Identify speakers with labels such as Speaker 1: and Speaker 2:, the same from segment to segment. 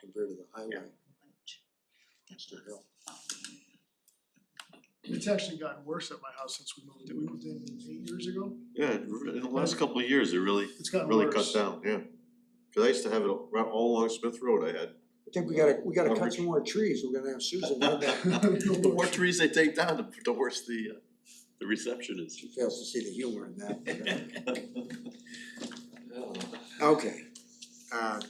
Speaker 1: compared to the highway, Mr. Hill.
Speaker 2: It's actually gotten worse at my house since we moved in, we moved in eight years ago,
Speaker 3: Yeah, it re- in the last couple of years, it really,
Speaker 2: it's gotten worse.
Speaker 3: really cut down, yeah. Cause I used to have it all- right all along Smith Road, I had.
Speaker 1: I think we gotta, we gotta cut
Speaker 3: Coverage.
Speaker 1: some more trees, we're gonna have Susan run that,
Speaker 3: The more trees they take down, the- the worse the uh, the reception is.
Speaker 1: she fails to see the humor in that. Okay, uh,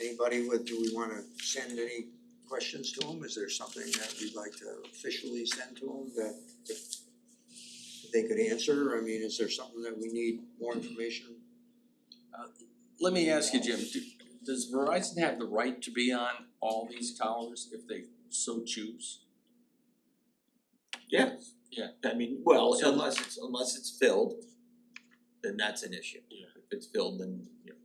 Speaker 1: anybody with, do we wanna send any questions to them? Is there something that we'd like to officially send to them that that they could answer? I mean, is there something that we need more information?
Speaker 4: Let me ask you, Jim, do- does Verizon have the right to be on all these towers if they so choose?
Speaker 5: Yes.
Speaker 4: Yeah.
Speaker 5: I mean, well,
Speaker 4: So-
Speaker 5: unless it's unless it's filled, then that's an issue.
Speaker 4: Yeah.
Speaker 5: If it's filled, then you know,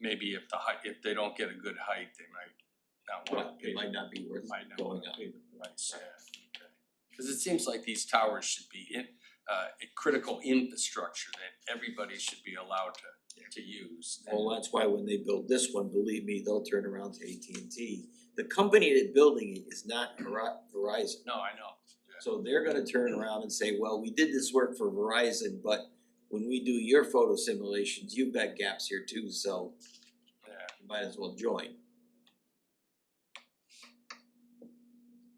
Speaker 4: Maybe if the height, if they don't get a good height, they might not wanna pay,
Speaker 5: it might not be worth
Speaker 4: might not
Speaker 5: going
Speaker 4: wanna
Speaker 5: up.
Speaker 4: pay the price, yeah, okay. Cause it seems like these towers should be in, uh, a critical infrastructure that everybody should be allowed to to use. and-
Speaker 5: Well, that's why when they build this one, believe me, they'll turn around to AT and T. The company that's building it is not Veri- Verizon,
Speaker 4: No, I know,
Speaker 5: so they're gonna turn around and say, well, we did this work for Verizon, but when we do your photo simulations, you've got gaps here too, so
Speaker 4: yeah,
Speaker 5: you might as well join.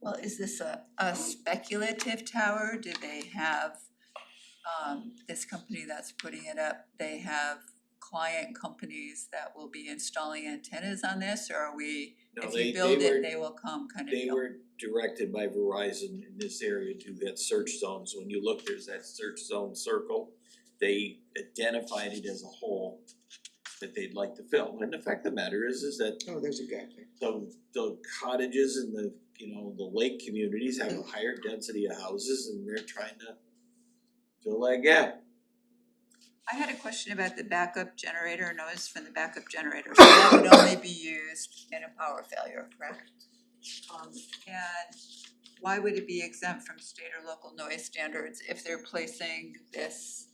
Speaker 6: Well, is this a a speculative tower? Do they have um this company that's putting it up, they have client companies that will be installing antennas on this or are we,
Speaker 5: No,
Speaker 6: if
Speaker 5: they
Speaker 6: you
Speaker 5: they
Speaker 6: build
Speaker 5: were-
Speaker 6: it, they will come kind of
Speaker 5: They
Speaker 6: deal?
Speaker 5: were directed by Verizon in this area to that search zone, so when you look, there's that search zone circle. They identified it as a hole that they'd like to fill, and the fact of the matter is, is that
Speaker 1: Oh, there's a gap there.
Speaker 5: the the cottages and the, you know, the lake communities have a higher density of houses and they're trying to fill that gap.
Speaker 6: I had a question about the backup generator, noise from the backup generator, so that would only be used in a power failure, correct? Um and why would it be exempt from state or local noise standards if they're placing this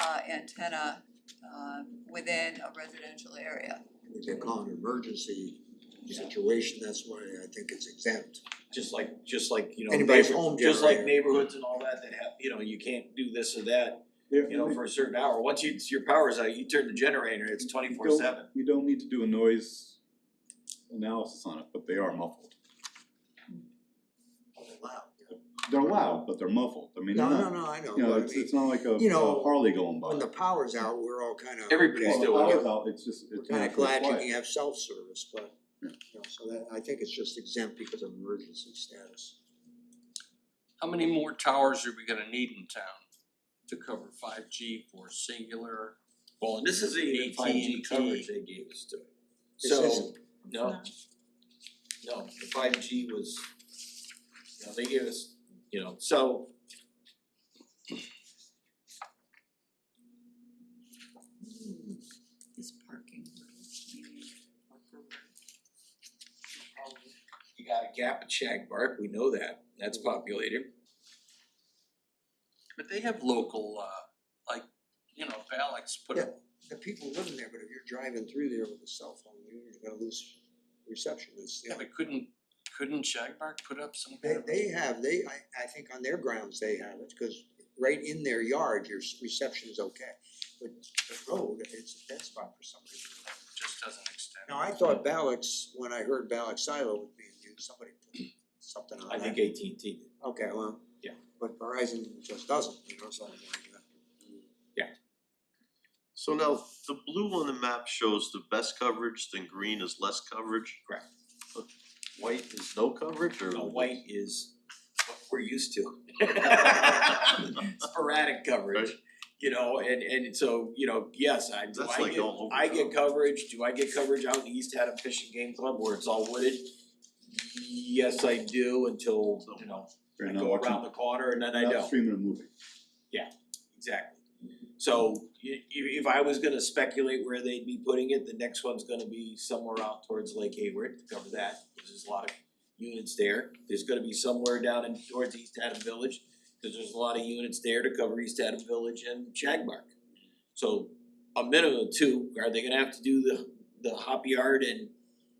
Speaker 6: uh antenna um within a residential area?
Speaker 1: They call it an emergency situation, that's why I think it's exempt.
Speaker 5: Just like, just like, you know,
Speaker 1: Anybody's
Speaker 5: neighbor-
Speaker 1: home
Speaker 5: just like
Speaker 1: generator.
Speaker 5: neighborhoods and all that that have, you know, you can't do this or that,
Speaker 7: Yeah,
Speaker 5: you know, for a certain hour. Once you, your power's out, you turn the generator, it's twenty four seven.
Speaker 7: you don't need to do a noise analysis on it, but they are muffled.
Speaker 1: Wow.
Speaker 7: They're loud, but they're muffled, I mean, they're
Speaker 1: No, no,
Speaker 7: not,
Speaker 1: no, I know,
Speaker 7: you
Speaker 1: but
Speaker 7: know,
Speaker 1: I
Speaker 7: it's
Speaker 1: mean,
Speaker 7: it's not like a
Speaker 1: you know,
Speaker 7: a Harley going by.
Speaker 1: when the power's out, we're all kind of.
Speaker 5: Everybody's
Speaker 7: Well,
Speaker 5: still
Speaker 7: the
Speaker 5: working.
Speaker 7: power's out, it's just,
Speaker 1: We're
Speaker 7: it's
Speaker 1: kind
Speaker 7: not
Speaker 1: of
Speaker 7: for
Speaker 1: glad you
Speaker 7: quiet.
Speaker 1: can have self-service, but,
Speaker 7: Yeah.
Speaker 1: you know, so that, I think it's just exempt because of emergency status.
Speaker 4: how many more towers are we gonna need in town to cover five G for singular?
Speaker 5: Well, and this isn't even five G
Speaker 4: AT&T.
Speaker 5: coverage they gave us to.
Speaker 1: This
Speaker 5: So,
Speaker 1: isn't.
Speaker 5: no, no, the five G was, you know, they gave us, you know, so.
Speaker 6: Hmm, This parking, maybe,
Speaker 5: You got a gap at Shag Bark, we know that, that's populated.
Speaker 4: But they have local, uh, like, you know, if Alex put
Speaker 1: Yeah.
Speaker 4: a
Speaker 1: The people living there, but if you're driving through there with a cell phone, you're gonna lose reception, it's, you know.
Speaker 4: But couldn't, couldn't Shagbark put up some
Speaker 1: They,
Speaker 4: kind of?
Speaker 1: they have, they, I, I think on their grounds, they have it, cause right in their yard, your s- reception's okay. But the road, it's a dead spot for some reason.
Speaker 4: Just doesn't extend.
Speaker 1: Now, I thought Balix, when I heard Balix silo was being used, somebody put something on that.
Speaker 5: I think AT&T did.
Speaker 1: Okay, well.
Speaker 5: Yeah.
Speaker 1: But Verizon just doesn't, you know, so I'm like,
Speaker 3: So now, the blue on the map shows the best coverage, then green is less coverage.
Speaker 5: Correct.
Speaker 3: White is no coverage or?
Speaker 5: The white is what we're used to. Sporadic coverage,
Speaker 3: Right.
Speaker 5: you know, and and so, you know, yes, I do
Speaker 3: That's
Speaker 5: I
Speaker 3: like
Speaker 5: get,
Speaker 3: all over
Speaker 5: I get
Speaker 3: town.
Speaker 5: coverage, do I get coverage out in the East Haddam Fishing Game Club where it's all wooded? Yes, I do until, you know,
Speaker 7: You're
Speaker 5: I
Speaker 7: not
Speaker 5: go
Speaker 7: watching-
Speaker 5: around the corner and then I don't.
Speaker 7: Not streaming a movie.
Speaker 5: Exactly. So i- i- if I was gonna speculate where they'd be putting it, the next one's gonna be somewhere out towards Lake Hayward to cover that, cause there's a lot of units there. There's gonna be somewhere down in towards East Haddam Village, cause there's a lot of units there to cover East Haddam Village and Shagmark. So a minimum of two, are they gonna have to do the the hop yard and